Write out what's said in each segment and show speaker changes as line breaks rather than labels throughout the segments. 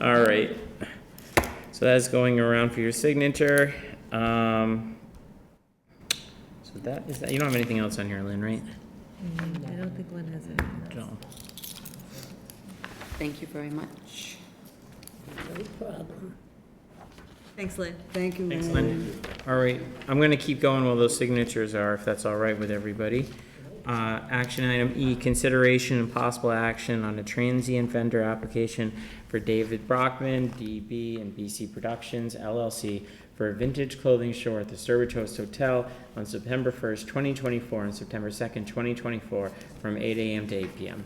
All right. So that's going around for your signature. Um, so that is that. You don't have anything else on here, Lynn, right?
I don't think Lynn has anything else.
No.
Thank you very much.
Thanks, Lynn.
Thank you.
Thanks, Lynn. All right, I'm gonna keep going while those signatures are, if that's all right with everybody. Uh, action item E, consideration and possible action on a transient vendor application for David Brockman, DB and BC Productions LLC for a vintage clothing show at the Sturbridge Host Hotel on September first, twenty twenty-four, and September second, twenty twenty-four, from eight AM to eight PM.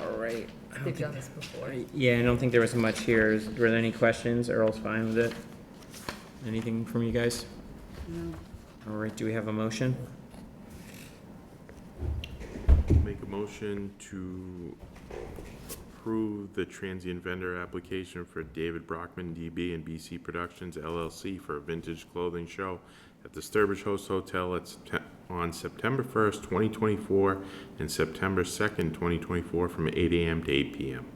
All right. I don't
They've
think-
done this before.
yeah, I don't think there was much here. Is- Were there any questions? Earl's fine with it. Anything from you guys? All right, do we have a motion?
Make a motion to approve the transient vendor application for David Brockman, DB and BC Productions LLC for a vintage clothing show at the Sturbridge Host Hotel at Septe- on September first, twenty twenty-four, and September second, twenty twenty-four, from eight AM to eight PM.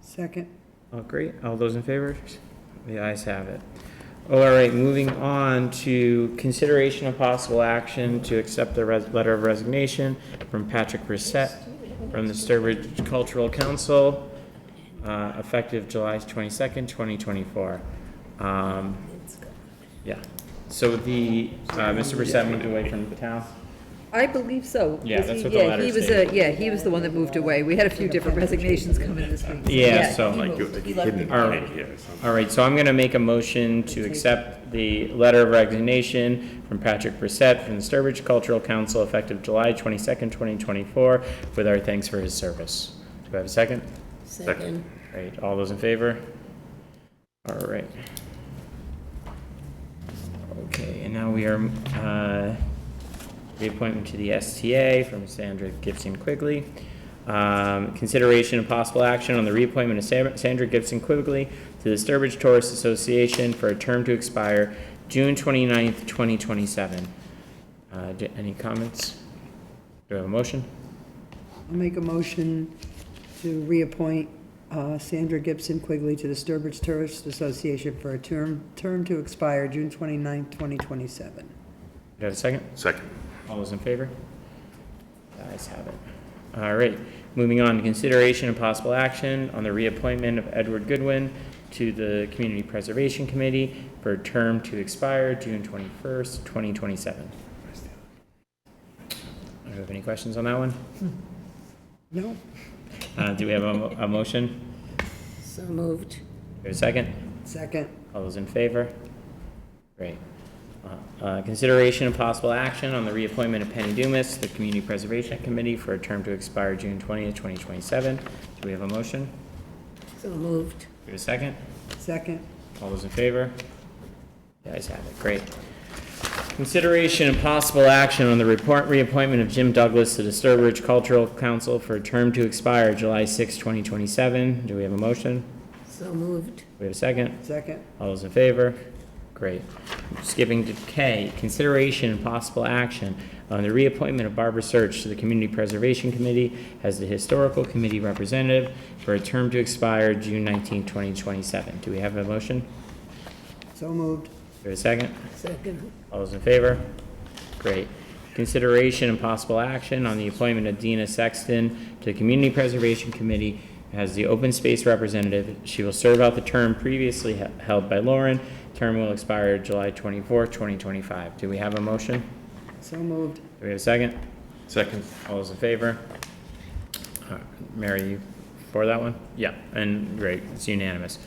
Second.
Oh, great. All those in favor? The ayes have it. All right, moving on to consideration of possible action to accept the res- letter of resignation from Patrick Brissette from the Sturbridge Cultural Council, uh, effective July twenty-second, twenty twenty-four. Um, yeah, so the, uh, Mr. Brissette moved away from the town?
I believe so.
Yeah,
Was
that's
he-
what the
yeah,
letter
he was
stated.
a- Yeah, he was the one that moved away. We had a few different resignations come in this week.
Yeah, so-
he
Like,
moved. He left
Hidden
it.
All right.
in here or something.
All right, so I'm gonna make a motion to accept the letter of resignation from Patrick Brissette from the Sturbridge Cultural Council effective July twenty-second, twenty twenty-four, with our thanks for his service. Do I have a second?
Second.
All right, all those in favor? All right. Okay, and now we are, uh, reappointment to the STA from Sandra Gibson Quigley. Um, consideration and possible action on the reappointment of Sam- Sandra Gibson Quigley to the Sturbridge Tourist Association for a term to expire June twenty-ninth, twenty twenty-seven. Uh, d- any comments? Do I have a motion?
I'll make a motion to reappoint uh, Sandra Gibson Quigley to the Sturbridge Tourist Association for a term, term to expire June 29, 2027.
Do I have a second?
Second.
All those in favor? The ayes have it. All right, moving on to consideration and possible action on the reappointment of Edward Goodwin to the Community Preservation Committee for a term to expire June twenty-first, twenty twenty-seven. Do you have any questions on that one?
No?
Uh, do we have a, mo- a motion?
So moved.
Do we have a second?
Second.
All those in favor? Great. Uh, uh, Consideration and possible action on the reappointment of Penny Dumas to the Community Preservation Committee for a term to expire June twentieth, twenty twenty-seven. Do we have a motion?
So moved.
Do we have a second?
Second.
All those in favor? The ayes have it, great. Consideration and possible action on the report reappointment of Jim Douglas to the Sturbridge Cultural Council for a term to expire July sixth, twenty twenty-seven. Do we have a motion?
So moved.
Do we have a second?
Second.
All those in favor? Great. Skipping to K, consideration and possible action on the reappointment of Barbara Search to the Community Preservation Committee as the Historical Committee Representative for a term to expire June 19, 2027. Do we have a motion?
So moved.
Do we have a second?
Second.
All those in favor? Great. Consideration and possible action on the appointment of Dina Sexton to the Community Preservation Committee as the Open Space Representative. She will serve out the term previously he- held by Lauren. Term will expire July 24, 2025. Do we have a motion?
So moved.
Do we have a second?
Second.
All those in favor? Uh, Mary, you for that one? Yeah, and great, it's unanimous.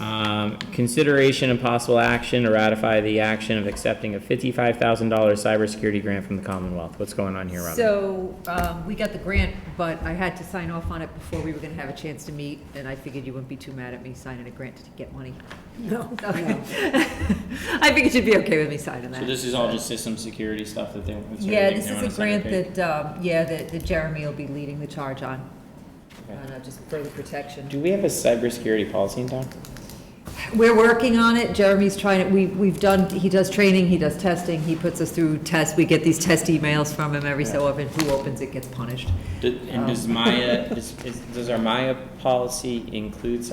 Um, Consideration and possible action to ratify the action of accepting a $55,000 cybersecurity grant from the Commonwealth. What's going on here, Robin?
So, um, we got the grant, but I had to sign off on it before we were gonna have a chance to meet, and I figured you wouldn't be too mad at me signing a grant to get money.
No.
So- I figured you'd be okay with me signing that.
is all just system security stuff that they.
Yeah, this is a grant that, um, yeah, that that Jeremy will be leading the charge on, on uh, just further protection.
Do we have a cybersecurity policy in town?
We're working on it, Jeremy's trying to, we, we've done, he does training, he does testing, he puts us through tests, we get these test emails from him every so often, who opens it gets punished.
And does Maya, does our Maya policy include